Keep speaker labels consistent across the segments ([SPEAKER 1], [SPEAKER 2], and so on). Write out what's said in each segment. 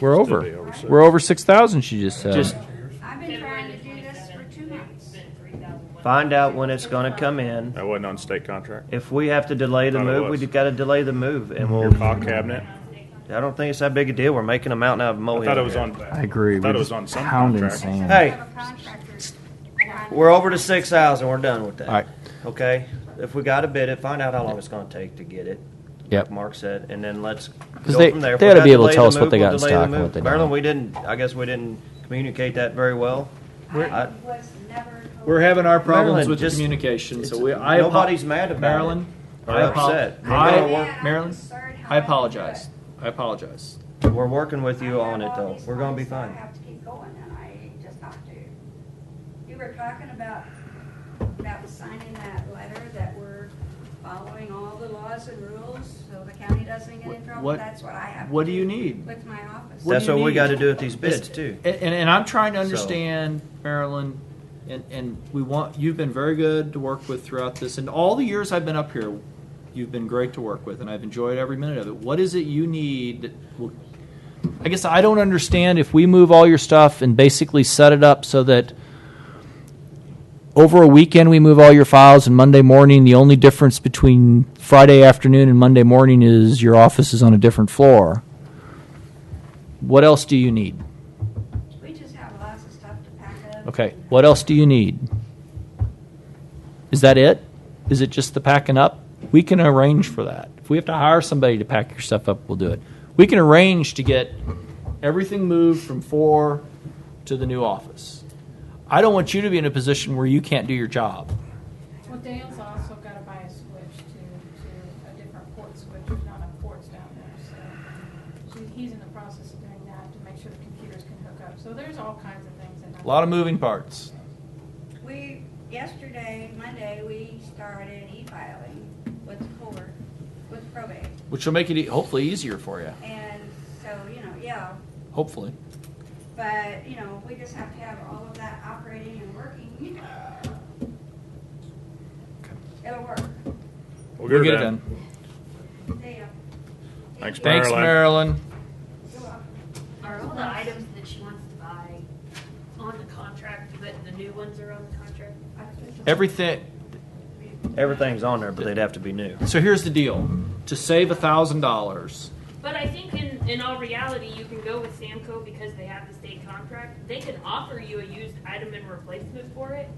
[SPEAKER 1] We're over.
[SPEAKER 2] be over six.
[SPEAKER 1] We're over six thousand. She just said.
[SPEAKER 3] Just
[SPEAKER 4] I've been trying to do this for two months.
[SPEAKER 3] find out when it's going to come in.
[SPEAKER 2] That wasn't on state contract.
[SPEAKER 3] If we have to delay the
[SPEAKER 2] Thought it was.
[SPEAKER 3] move,
[SPEAKER 2] Mm-hmm.
[SPEAKER 3] we've got to delay the move, and
[SPEAKER 2] Your
[SPEAKER 3] we'll.
[SPEAKER 2] cog cabinet.
[SPEAKER 3] I don't think it's that big a deal. We're making a mountain out of a
[SPEAKER 2] I
[SPEAKER 3] molehill.
[SPEAKER 2] thought it was
[SPEAKER 3] here.
[SPEAKER 2] on.
[SPEAKER 1] I agree.
[SPEAKER 2] I
[SPEAKER 1] We're
[SPEAKER 2] thought it was
[SPEAKER 1] just
[SPEAKER 2] on some
[SPEAKER 1] pounding
[SPEAKER 2] contract.
[SPEAKER 1] sand.
[SPEAKER 3] Hey.
[SPEAKER 4] Have a contractor.
[SPEAKER 3] We're over to six thousand. We're done with that.
[SPEAKER 1] All right.
[SPEAKER 3] Okay. If we got to bid it, find out how long it's going to take to get it.
[SPEAKER 1] Yep.
[SPEAKER 3] Mark said, and then let's go
[SPEAKER 1] Because they-
[SPEAKER 3] from there. If
[SPEAKER 1] they
[SPEAKER 3] we
[SPEAKER 1] oughta
[SPEAKER 3] gotta
[SPEAKER 1] be able to
[SPEAKER 3] delay
[SPEAKER 1] tell
[SPEAKER 3] the
[SPEAKER 1] us what
[SPEAKER 3] move,
[SPEAKER 1] they
[SPEAKER 3] we'll
[SPEAKER 1] got in
[SPEAKER 3] delay the
[SPEAKER 1] stock and
[SPEAKER 3] move.
[SPEAKER 1] what they
[SPEAKER 3] Marilyn,
[SPEAKER 1] don't.
[SPEAKER 3] we didn't. I guess we didn't communicate that very well. I-
[SPEAKER 4] I was never told.
[SPEAKER 5] We're having our problems
[SPEAKER 3] Marilyn,
[SPEAKER 5] with the
[SPEAKER 3] just-
[SPEAKER 5] communication, so
[SPEAKER 3] it's-
[SPEAKER 5] we, I. apo-
[SPEAKER 3] nobody's mad about it
[SPEAKER 5] Marilyn,
[SPEAKER 3] or
[SPEAKER 5] I apo-
[SPEAKER 3] upset. We're
[SPEAKER 5] I-
[SPEAKER 3] gonna work-
[SPEAKER 5] Marilyn, I apologize. I apologize.
[SPEAKER 3] We're working with you on it, though. We're going to be
[SPEAKER 4] I
[SPEAKER 3] fine.
[SPEAKER 4] have to keep going, and I just have to. You were talking about, about signing that letter that we're following all the laws and rules, so the county doesn't get in trouble.
[SPEAKER 5] What-
[SPEAKER 4] That's what I have. to
[SPEAKER 5] What do you need?
[SPEAKER 4] With my office.
[SPEAKER 5] What
[SPEAKER 3] That's
[SPEAKER 5] do you
[SPEAKER 3] what we
[SPEAKER 5] need?
[SPEAKER 3] got to do with these bids
[SPEAKER 5] It's-
[SPEAKER 3] too.
[SPEAKER 5] And, and and I'm trying to understand, Marilyn, and, and we want, you've been very good to work with throughout this, and all the years I've been up here, you've been great to work with, and I've enjoyed every minute of it. What is it you need? that will-
[SPEAKER 1] I guess I don't understand if we move all your stuff and basically set it up so that over a weekend we move all your files and Monday morning the only difference between Friday afternoon and Monday morning is your office is on a different floor. What else do you need?
[SPEAKER 4] We just have lots of stuff to pack up.
[SPEAKER 1] Okay, what else do you need? Is that it? Is it just the packing up? We can arrange for that. If we have to hire somebody to pack your stuff up, we'll do it. We can arrange to get everything moved from four to the new office. I don't want you to be in a position where you can't do your job.
[SPEAKER 6] Well, Dale's also gotta buy a switch to, to a different port switch, there's not enough ports down there, so. So he's in the process of doing that to make sure the computers can hook up, so there's all kinds of things that.
[SPEAKER 1] A lot of moving parts.
[SPEAKER 4] We, yesterday, Monday, we started e-filing with the court, with probate.
[SPEAKER 1] Which will make it e- hopefully easier for you.
[SPEAKER 4] And so, you know, yeah,
[SPEAKER 1] Hopefully.
[SPEAKER 4] but, you know, we just have to have all of that operating and working. It'll work.
[SPEAKER 2] We'll
[SPEAKER 1] We'll
[SPEAKER 2] her
[SPEAKER 1] get it done.
[SPEAKER 4] See ya.
[SPEAKER 2] Thanks,
[SPEAKER 1] Thanks, Marilyn.
[SPEAKER 4] You're welcome.
[SPEAKER 7] Are all the items that she wants to buy on the contract, but the new ones are on the contract?
[SPEAKER 1] Everything,
[SPEAKER 3] Everything's on there, but they'd have to be new.
[SPEAKER 5] So here's the deal, to save a thousand dollars,
[SPEAKER 7] But I think in, in all reality, you can go with Samco because they have the state contract. They can offer you a used item and replacement for it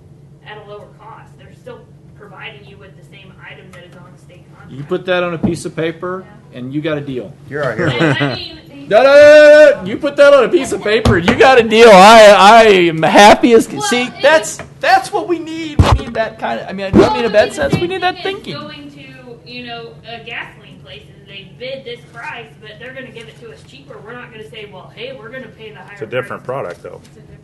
[SPEAKER 7] at a lower cost. They're still providing you with the same item that is on the state contract.
[SPEAKER 5] you put that on a piece of paper, and you got a deal.
[SPEAKER 3] You're our hero.
[SPEAKER 7] And I mean,
[SPEAKER 5] No, no, no, no, no. You put that on a piece of paper and you got a
[SPEAKER 1] deal. I I am happy as can
[SPEAKER 7] Well,
[SPEAKER 1] see.
[SPEAKER 7] it-
[SPEAKER 1] That's that's what we need. We need that kind of. I mean, I don't mean a
[SPEAKER 7] Well,
[SPEAKER 1] bad
[SPEAKER 7] the
[SPEAKER 1] sense. We
[SPEAKER 7] same
[SPEAKER 1] need that
[SPEAKER 7] thing is
[SPEAKER 1] thinking.
[SPEAKER 7] Going to you know a gasoline place and they bid this price, but they're going to give it to us cheaper. We're not going to say, well, hey, we're going to pay the higher.
[SPEAKER 2] It's a different
[SPEAKER 7] price.
[SPEAKER 2] product, though.
[SPEAKER 6] It's a different.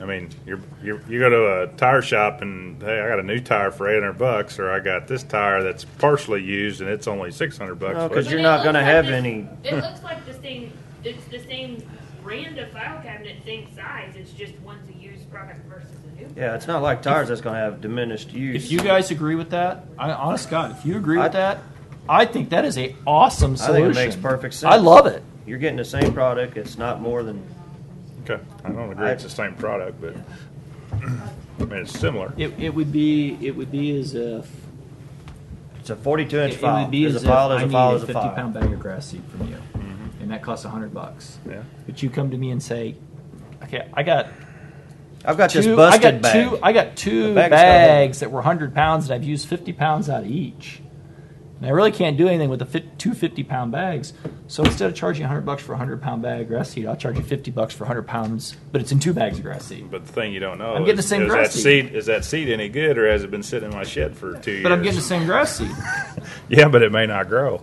[SPEAKER 2] I mean, you're, you're you go to a tire shop and hey, I got a new tire for eight hundred bucks, or I got this tire that's partially used and it's only six hundred bucks.
[SPEAKER 5] Oh,
[SPEAKER 3] No,
[SPEAKER 2] but
[SPEAKER 3] 'cause
[SPEAKER 7] But
[SPEAKER 3] you're
[SPEAKER 7] it
[SPEAKER 3] not
[SPEAKER 7] looks
[SPEAKER 3] gonna
[SPEAKER 7] like
[SPEAKER 3] have
[SPEAKER 7] this-
[SPEAKER 3] any-
[SPEAKER 7] It looks like the same. It's the same brand of file cabinet, same size. It's just one's a used product versus a new.
[SPEAKER 3] Yeah, it's not like tires that's going to have diminished use.
[SPEAKER 5] If you guys agree with that, I, honest God, if you agree
[SPEAKER 3] I-
[SPEAKER 5] with that, I think that is a awesome
[SPEAKER 3] I think
[SPEAKER 5] solution.
[SPEAKER 3] it makes perfect
[SPEAKER 1] I
[SPEAKER 3] sense.
[SPEAKER 1] love it.
[SPEAKER 3] You're getting the same product. It's not more than
[SPEAKER 2] okay, I don't agree. It's the same product, but I mean, it's similar.
[SPEAKER 5] It, it would be it would be as if
[SPEAKER 3] it's a 42 inch
[SPEAKER 5] it
[SPEAKER 3] file.
[SPEAKER 5] would be
[SPEAKER 3] There's
[SPEAKER 5] as
[SPEAKER 3] a file.
[SPEAKER 5] if
[SPEAKER 3] There's
[SPEAKER 5] I
[SPEAKER 3] a file.
[SPEAKER 5] needed
[SPEAKER 3] There's
[SPEAKER 5] a Mm-hmm.
[SPEAKER 3] a
[SPEAKER 5] fifty
[SPEAKER 3] file.
[SPEAKER 5] pound bag of grass seed from you, and that costs hundred bucks.
[SPEAKER 2] Yeah.
[SPEAKER 5] But you come to me and say, "Okay, I got
[SPEAKER 3] I've got
[SPEAKER 5] two.
[SPEAKER 3] this
[SPEAKER 5] I
[SPEAKER 3] busted
[SPEAKER 5] got
[SPEAKER 3] bag.
[SPEAKER 5] two. I got two
[SPEAKER 3] The bag's got a hole.
[SPEAKER 5] bags that were hundred pounds, and I've used fifty pounds out of each. And I really can't do anything with the fi- two 50 pound bags. So instead of charging hundred bucks for a hundred pound bag of grass seed, I'll charge you fifty bucks for hundred pounds, but it's in two bags of grass seed.
[SPEAKER 2] But the thing you don't know
[SPEAKER 5] I'm getting
[SPEAKER 2] is,
[SPEAKER 5] the same
[SPEAKER 2] is that
[SPEAKER 5] grass seed.
[SPEAKER 2] seed is that seed any good, or has it been sitting in my shed for two
[SPEAKER 5] But I'm
[SPEAKER 2] years?
[SPEAKER 5] getting the same grass seed.
[SPEAKER 2] yeah, but it may not grow.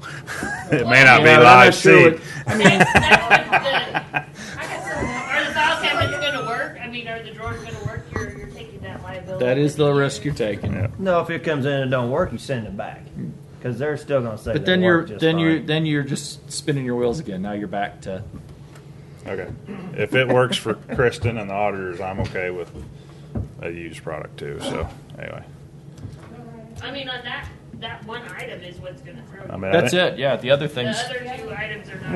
[SPEAKER 2] it may not
[SPEAKER 5] And
[SPEAKER 2] be
[SPEAKER 5] I'm not
[SPEAKER 2] live
[SPEAKER 5] sure
[SPEAKER 2] seed.
[SPEAKER 5] what- I mean,
[SPEAKER 7] That's what the- I got some- Are the file cabinets going to work? I mean, are the drawers going to work? You're, you're taking that liability.
[SPEAKER 5] that is the risk you're taking.
[SPEAKER 2] Yeah.
[SPEAKER 3] No, if it comes in and don't work, you send it back because they're still going to say.
[SPEAKER 5] But
[SPEAKER 3] they
[SPEAKER 5] then you're
[SPEAKER 3] work just
[SPEAKER 5] then you're
[SPEAKER 3] fine.
[SPEAKER 5] then you're just spinning your wheels again. Now you're back to
[SPEAKER 2] Okay, if it works for Kristen and the auditors, I'm okay with a used product too. So anyway,
[SPEAKER 7] I mean, on that that one item is what's going to throw.
[SPEAKER 2] I
[SPEAKER 7] you.
[SPEAKER 2] mean, I
[SPEAKER 5] that's
[SPEAKER 2] think-
[SPEAKER 5] it. Yeah, the other
[SPEAKER 7] The
[SPEAKER 5] things.
[SPEAKER 7] other two items are not.